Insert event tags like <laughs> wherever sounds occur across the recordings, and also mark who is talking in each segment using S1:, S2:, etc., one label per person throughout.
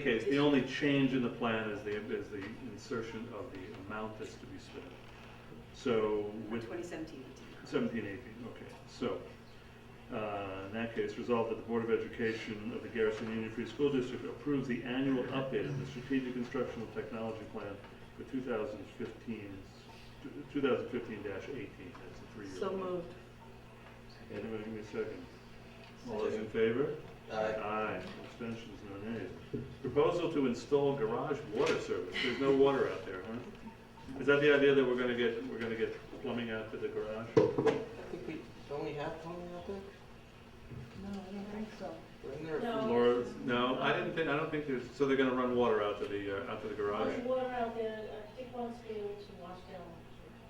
S1: case, the only change in the plan is the, is the insertion of the amount that's to be spent. So with
S2: 2017.
S1: seventeen eighteen, okay, so, uh, in that case, resolved that the Board of Education of the Garrison Union Free School District approves the annual update of the Strategic Instructional Technology Plan for 2015 dash eighteen, that's a three-year.
S2: So
S1: plan.
S2: moved.
S1: Anybody give me a second? All those in favor?
S3: Aye.
S1: Abstentions, no nays. Proposal to install garage water service. There's no water out there, huh? Is that the idea that we're gonna get, we're gonna get plumbing out to the garage?
S3: I think we, don't we have plumbing out there?
S2: No, I don't think so.
S3: Isn't there?
S4: No.
S1: Laura, no, I didn't think, I don't think there's, so they're gonna run water out to the, uh, out to the garage?
S4: There's water out there, I think once we were to wash down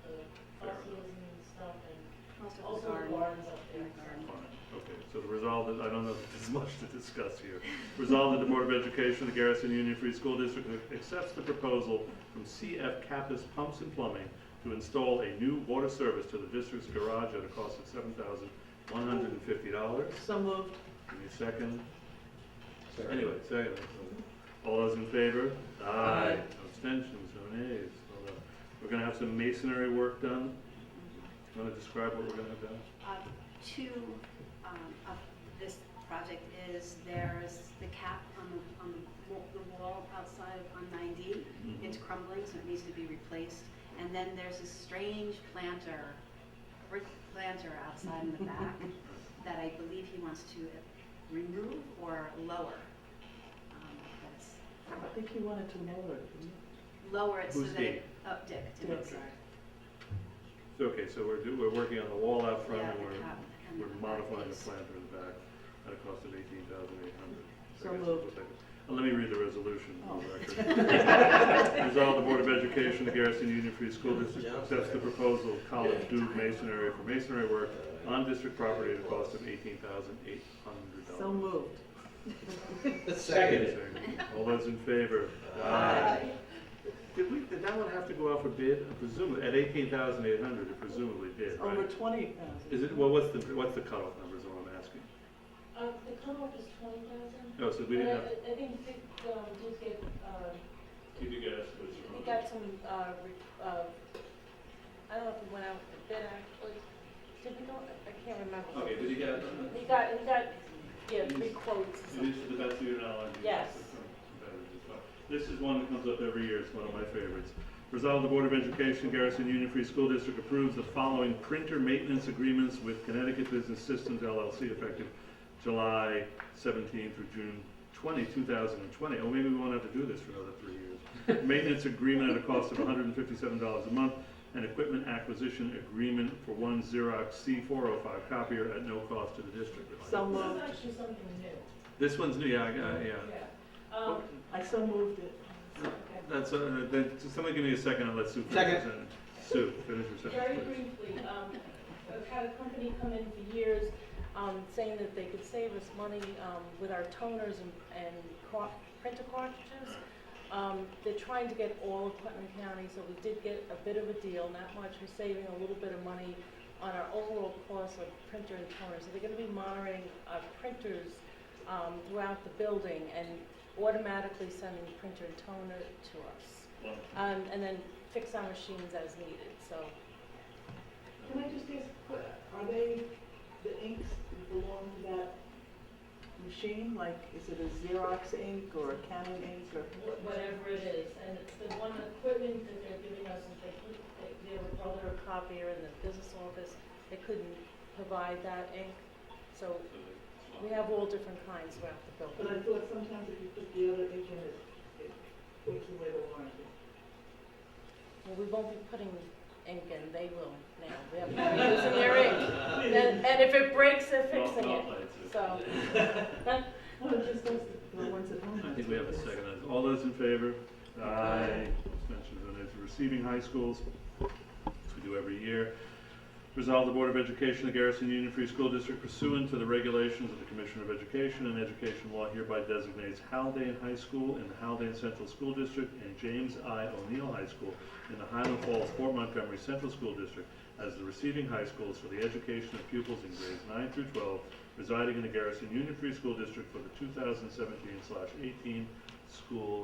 S4: the fossils and stuff and also the barns up there.
S1: Fine, Okay, so the resolve, that- I don't know if there's <laughs> much to discuss here. Resolve that the Board of Education of the Garrison Union Free School District accepts the proposal from CF Kappas Pumps and Plumbing to install a new water service to the district's garage at a cost of seven thousand one hundred and fifty dollars.
S2: So moved.
S1: Give me a second. Anyway, second. All those in favor? Aye. No Abstentions, no nays. Hold on. We're gonna have some masonry work done. Wanna describe what we're gonna have done?
S5: Uh, Two um, of this project is there's the cap on the, on the wa- the wall outside on 9D.
S1: Mhm.
S5: It's crumbling, so it needs to be replaced. And then there's a strange planter, brick planter outside in the
S2: <laughs>
S5: back that I believe he wants to remove or lower. Um, That's
S2: I think he wanted to lower it. didn't he?
S5: Lower it so
S1: Who's
S5: that it,
S1: Dick?
S5: oh, Dick, Dick,
S2: Dick.
S5: sorry.
S1: So, okay, so we're do, we're working on the wall out front
S5: Yeah,
S1: and
S5: the
S1: we're,
S5: cap and
S1: we're
S5: the back
S1: modifying the
S5: piece.
S1: plan for the back at a cost of eighteen thousand eight hundred.
S2: So moved.
S1: And let me read the resolution for
S2: Oh.
S1: the record. <laughs> Resolve the Board of Education, of the Garrison Union Free School District accepts the proposal of College Duke Masonry for masonry work
S3: Uh,
S1: on district property at a cost of eighteen thousand eight hundred dollars.
S2: So moved.
S3: Second.
S1: All those in favor?
S3: Aye.
S1: Did we, did that one have to go out for bid? Presumably, at eighteen thousand eight hundred, it presumably
S2: It's
S1: did, right?
S2: Over uh, 20,000.
S1: Is it, well, what's the, what's the cutoff number is what I'm asking?
S4: Uh, the cutoff is twenty thousand.
S1: Oh, so we didn't have.
S4: I think Dick, um, did get, uh,
S1: Did you guys?
S4: he got some, uh, re- uh, I don't know if he went out with bid actually. Did we go, I can't remember.
S1: Okay, did you get,
S4: He got, he got, yeah, three quotes or
S1: it is to
S4: something.
S1: the best of your knowledge? you
S4: Yes.
S1: guys are competitors as well. This is one that comes up every year, it's one of my favorites. Resolve the Board of Education Garrison Union Free School District approves the following printer maintenance agreements with Connecticut Business Systems LLC effective July 17 through June 20, 2020. Oh, maybe we won't have to do this for another three years. Maintenance agreement at a cost of $157 a month, and equipment acquisition agreement for one Xerox C405 copier at no cost to the district.
S2: So
S4: This is
S2: moved.
S4: actually something new.
S1: This one's new, yeah, I got- yeah.
S4: Yeah. Um,
S2: I so moved it.
S4: okay.
S1: That's, uh, then, somebody give me a second and let Sue finish.
S3: Second.
S1: her sentence. Sue, finish your
S4: Very
S1: sentence, please.
S4: briefly, um, I've had a company come in for years, um, saying that they could save us money, um, with our toners and, and car- printer cartridges. Um, they're trying to get all of Putnam County, so we did get a bit of a deal, not much, we're saving a little bit of money on our overall cost of printer and toner. So they're gonna be monitoring our printers, um, throughout the building and automatically sending printer and toner to us. Um, and then fix our machines as needed, so
S6: Can I just ask, are they, the inks belong to that machine? Like, is it a Xerox ink or a Canon ink or?
S4: wh- whatever it is, and it's the one equipment that they're giving us, is they, couldn't- they, they were called a copier in the business office, they couldn't provide that ink, so we have all different kinds throughout the
S6: But
S4: building.
S6: I thought sometimes if you put the other ink in, it, it takes away the warranty.
S4: Well, we won't be putting ink in, they will now, we have computers in their ink, and, and if it breaks, they're fixing it, so.
S6: Well, it's just those, the ones at home.
S1: I think we have a second. on this. All those in favor? Aye. Abstentions, and it's receiving high schools, as we do every year. Resolve the Board of Education, of the Garrison Union Free School District pursuant to the regulations of the Commission of Education and Education Law hereby designates Haldane High School in the Haldane Central School District and James I. O'Neill High School in the Highland Falls, Fort Montgomery Central School District as the receiving high schools for the education of pupils in grades nine through twelve residing in the Garrison Union Free School District for the 2017/18 school